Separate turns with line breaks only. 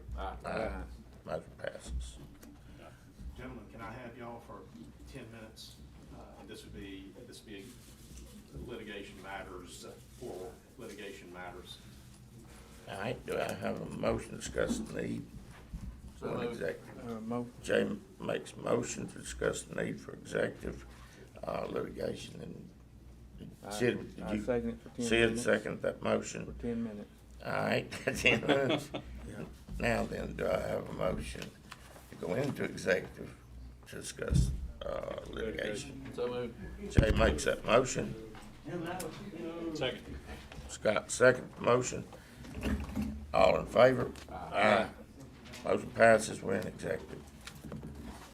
Aye. Motion passes.
Gentlemen, can I have y'all for ten minutes? Uh, This would be, this would be litigation matters, uh, for litigation matters.
All right, do I have a motion discussing the need for an executive?
Uh, Mo,
Jay makes motion to discuss the need for executive uh, litigation and Sid,
I- I
did you?
second it for 10
Sid
minutes.
seconded that
for
motion.
ten minutes.
All right, ten minutes. Now then, do I have a motion to go into executive to discuss uh, litigation?
So moved.
Jay makes that motion.
Second.
Scott, second motion. All in favor? Aye. Motion passes, we're in executive.